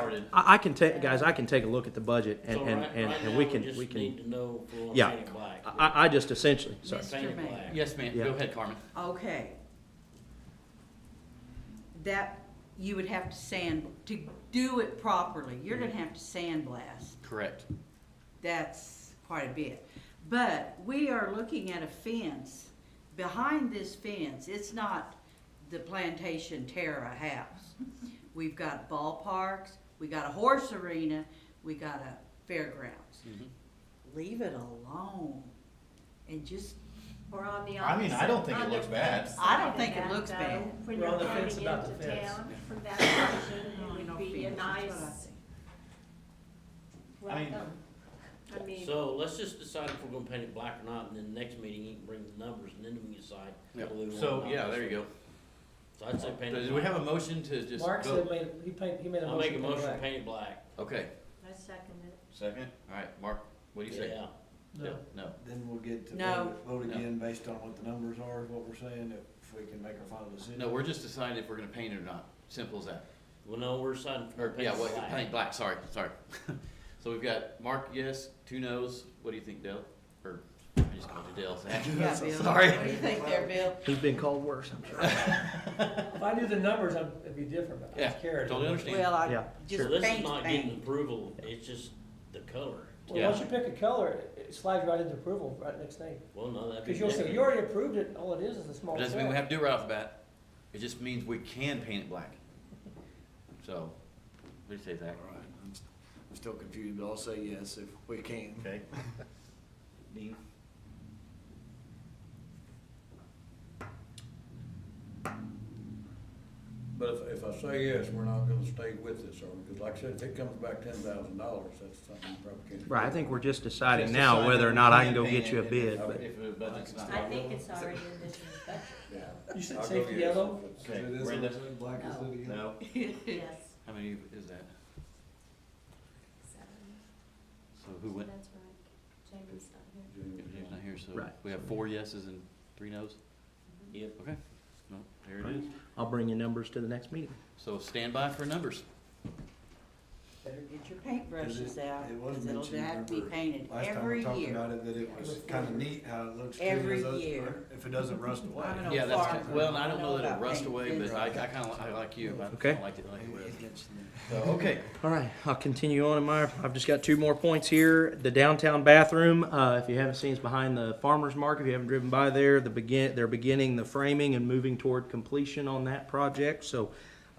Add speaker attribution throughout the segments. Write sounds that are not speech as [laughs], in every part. Speaker 1: started.
Speaker 2: I, I can take, guys, I can take a look at the budget and,
Speaker 1: So
Speaker 2: and,
Speaker 1: right-
Speaker 2: and,
Speaker 1: right
Speaker 2: and
Speaker 1: now,
Speaker 2: we can, we
Speaker 1: just
Speaker 2: can,
Speaker 1: need to know if we're
Speaker 2: Yeah.
Speaker 1: gonna paint it black.
Speaker 2: I, I just essentially, sorry.
Speaker 1: Paint it
Speaker 3: Mr. Mayor.
Speaker 1: black.
Speaker 4: Yes, ma'am.
Speaker 2: Yeah.
Speaker 4: Go ahead, Carmen.
Speaker 3: Okay. That, you would have to sand, to do it properly, you're gonna have to sandblast.
Speaker 4: Correct.
Speaker 3: That's quite a bit. But we are looking at a fence. Behind this fence, it's not the plantation Terra house. We've got ballparks, we got a horse arena, we got a fairgrounds.
Speaker 4: Mhm.
Speaker 3: Leave it alone and just,
Speaker 5: Or on the
Speaker 6: I mean,
Speaker 5: opposite.
Speaker 6: I don't think it
Speaker 5: on the
Speaker 6: looks bad.
Speaker 5: flip
Speaker 3: I don't
Speaker 5: side of
Speaker 3: think it
Speaker 5: that,
Speaker 3: looks
Speaker 5: though,
Speaker 3: bad.
Speaker 5: When
Speaker 7: We're
Speaker 5: you're
Speaker 7: on the
Speaker 5: coming
Speaker 7: fence about
Speaker 5: into
Speaker 7: the fence.
Speaker 5: town from
Speaker 3: [coughs]
Speaker 5: that direction,
Speaker 3: No,
Speaker 5: it
Speaker 3: no
Speaker 5: would be a
Speaker 3: fence, that's what I think.
Speaker 5: nice
Speaker 6: I mean-
Speaker 5: welcome. I mean,
Speaker 1: So let's just decide if we're gonna paint it black or not, and then next meeting you can bring the numbers, and then we can decide.
Speaker 4: Yeah.
Speaker 1: whether we want it or
Speaker 4: So,
Speaker 1: not.
Speaker 4: Oh, yeah, there you go.
Speaker 1: So I'd say paint it
Speaker 4: Do we have
Speaker 1: black.
Speaker 4: a motion to just
Speaker 7: Mark said
Speaker 4: vote?
Speaker 7: made, he paint, he made a
Speaker 1: I'll
Speaker 7: motion.
Speaker 1: make a
Speaker 7: to go
Speaker 1: motion,
Speaker 7: back.
Speaker 1: paint it black.
Speaker 4: Okay,
Speaker 5: I second it.
Speaker 6: Second?
Speaker 4: all right, Mark, what do you say?
Speaker 1: Yeah,
Speaker 7: No.
Speaker 4: No.
Speaker 8: Then we'll get to
Speaker 3: No.
Speaker 8: vote, vote
Speaker 4: No.
Speaker 8: again based on what the numbers are, is what we're saying, if we can make our final decision.
Speaker 4: No, we're just deciding if we're gonna paint it or not. Simple as that.
Speaker 1: well, no, we're deciding if we're
Speaker 4: Or,
Speaker 1: gonna
Speaker 4: yeah,
Speaker 1: paint it
Speaker 4: what,
Speaker 1: black.
Speaker 4: paint black, sorry, sorry. [laughs] So we've got Mark, yes, two no's. What do you think, Dale? Or, I just called you Dale.
Speaker 3: [laughs]
Speaker 4: [laughs]
Speaker 3: yeah, Bill. [laughs]
Speaker 4: Sorry.
Speaker 3: What do you think there, Bill?
Speaker 2: He's been called worse, I'm sure.
Speaker 7: If I knew the numbers, I'd, it'd be different, but I
Speaker 4: Yeah,
Speaker 7: was scared.
Speaker 4: totally understand.
Speaker 3: Well, I,
Speaker 2: Yeah,
Speaker 1: So
Speaker 3: just
Speaker 1: this is
Speaker 3: paint,
Speaker 1: not getting
Speaker 3: paint.
Speaker 1: approval, it's just the color.
Speaker 7: Well, once you pick a color, it- it slides right into approval right next thing.
Speaker 1: Well, no, that'd be.
Speaker 7: Cause you'll say,
Speaker 1: negative.
Speaker 7: you already approved it, all it is is a small
Speaker 4: It
Speaker 7: set.
Speaker 4: doesn't mean we have to do it right off the bat. It just means we can paint it black. So, what do you say, Zach?
Speaker 8: All right, I'm st- I'm still confused, but I'll say yes if we can.
Speaker 6: Okay. Dean?
Speaker 9: But if, if I say yes, we're not gonna stay with this, or, because like I said, if it comes back ten thousand dollars, that's something you probably can't. do.
Speaker 2: Right, I think we're just deciding
Speaker 6: Just
Speaker 2: now
Speaker 6: decide
Speaker 2: whether
Speaker 6: if
Speaker 2: or
Speaker 6: we
Speaker 2: not I can
Speaker 6: can
Speaker 2: go
Speaker 6: paint
Speaker 2: get you a
Speaker 6: it.
Speaker 2: bid,
Speaker 6: Okay.
Speaker 2: but
Speaker 6: If the budget's not.
Speaker 5: I think it's already in this year's budget,
Speaker 9: Yeah.
Speaker 7: You said
Speaker 9: I'll go
Speaker 7: safety
Speaker 9: yes.
Speaker 7: yellow?
Speaker 6: Okay,
Speaker 8: Is it is
Speaker 6: Brenda?
Speaker 8: in black as it is?
Speaker 6: No,
Speaker 5: yes.
Speaker 4: How many is that?
Speaker 5: Seven.
Speaker 4: So who went?
Speaker 5: That's right. Jamie's not here.
Speaker 4: James not here, so
Speaker 2: Right.
Speaker 4: we have four yeses and three nos?
Speaker 1: Yep.
Speaker 4: Okay, no, there it is.
Speaker 2: I'll bring you numbers to the next meeting.
Speaker 4: So stand by for numbers.
Speaker 3: Better get your paintbrushes
Speaker 8: Is it-
Speaker 3: out,
Speaker 8: it
Speaker 3: cause
Speaker 8: wasn't
Speaker 3: it'll
Speaker 8: mentioned,
Speaker 3: have to be
Speaker 8: remember,
Speaker 3: painted
Speaker 8: Last time we
Speaker 3: every
Speaker 8: talked
Speaker 3: year.
Speaker 8: about it, that it was kinda neat how it looks. too,
Speaker 3: Every
Speaker 8: is those-
Speaker 3: year.
Speaker 8: If it doesn't rust away.
Speaker 3: I don't know.
Speaker 4: Yeah, that's,
Speaker 3: farmer.
Speaker 4: ki- well, and I don't
Speaker 3: I
Speaker 4: know
Speaker 3: know
Speaker 4: that
Speaker 3: about
Speaker 4: it'll rust
Speaker 3: paint
Speaker 4: away, but I, I
Speaker 3: business.
Speaker 4: kinda, li- I like you, but I
Speaker 2: Okay.
Speaker 4: don't like it like it was.
Speaker 8: It- it's-
Speaker 4: So, okay,
Speaker 2: All right, I'll continue on in my, I've just got two more points here. The downtown bathroom, uh, if you haven't seen, it's behind the farmer's market. If you haven't driven by there, the begin, they're beginning the framing and moving toward completion on that project, so,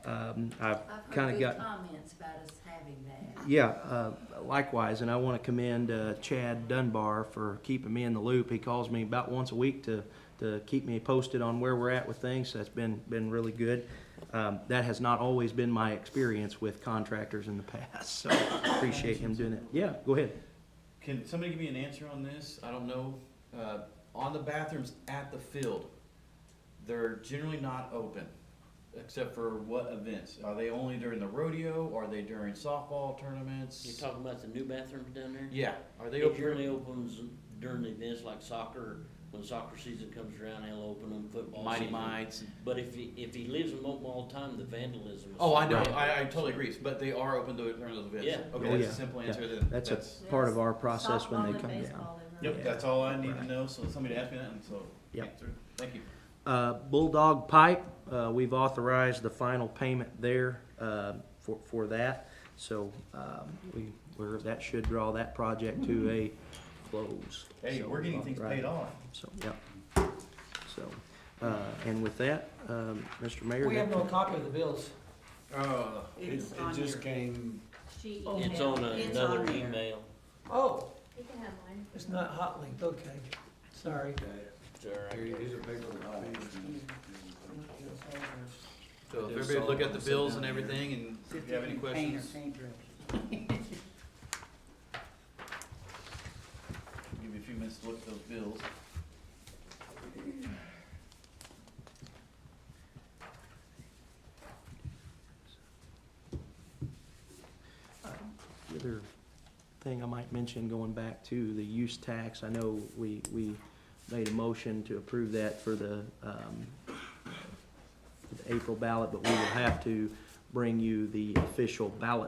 Speaker 2: um, I've
Speaker 5: I've
Speaker 2: kinda
Speaker 5: heard good
Speaker 2: got.
Speaker 5: comments about us having that.
Speaker 2: Yeah, uh, likewise, and I want to commend uh, Chad Dunbar for keeping me in the loop. He calls me about once a week to, to keep me posted on where we're at with things. That's been, been really good. Um, That has not always been my experience with contractors in the [laughs] past, so appreciate him doing it. Yeah, go ahead.
Speaker 4: can somebody give me an answer on this? I don't know, uh, on the bathrooms at the field, they're generally not open, except for what events? Are they only during the rodeo, are they during softball tournaments?
Speaker 1: You're talking about the new bathrooms down there?
Speaker 4: Yeah, are they
Speaker 1: It
Speaker 4: open?
Speaker 1: generally opens during the events like soccer, when soccer season comes around, they'll open them, football
Speaker 4: Mighty
Speaker 1: season.
Speaker 4: Mites.
Speaker 1: But if he, if he lives in Mobile all the time, the vandalism. is-
Speaker 4: Oh, I know,
Speaker 2: Right.
Speaker 4: I, I totally agree, but they are open to, during those events.
Speaker 1: Yeah.
Speaker 2: Oh,
Speaker 4: Okay, that's
Speaker 2: yeah.
Speaker 4: a simple
Speaker 2: Yeah.
Speaker 4: answer then.
Speaker 2: That's a part of our process when they come down.
Speaker 6: Yep, that's all I need to know, so somebody asked me that, and so.
Speaker 2: Yep.
Speaker 6: answered. Thank you.
Speaker 2: Uh, Bulldog Pipe, uh, we've authorized the final payment there uh, for, for that. So um, we, we're, that should draw that project to a close.
Speaker 6: Hey,
Speaker 2: So,
Speaker 6: we're getting things
Speaker 2: right.
Speaker 6: paid off.
Speaker 2: So, yeah. So, uh, and with that, um, Mr. Mayor.
Speaker 7: We have
Speaker 2: that-
Speaker 7: no copy of the bills.
Speaker 8: Uh, it,
Speaker 3: It's
Speaker 8: it
Speaker 3: on
Speaker 8: just
Speaker 3: your-
Speaker 8: came,
Speaker 5: She
Speaker 7: Oh.
Speaker 5: emailed.
Speaker 1: It's on
Speaker 3: It's
Speaker 1: another
Speaker 3: on there.
Speaker 1: email.
Speaker 7: Oh,
Speaker 5: You can have mine.
Speaker 7: it's not hot linked, okay, sorry.
Speaker 8: there you- these are paper
Speaker 3: Mm-hmm.
Speaker 8: copies.
Speaker 4: So if everybody look at the bills and everything and if you have any
Speaker 3: Paint or
Speaker 4: questions,
Speaker 3: paintbrush.
Speaker 6: Give you a few minutes to look at those bills.
Speaker 2: The other thing I might mention, going back to the use tax, I know we, we made a motion to approve that for the, um, the April ballot, but we will have to bring you the official ballot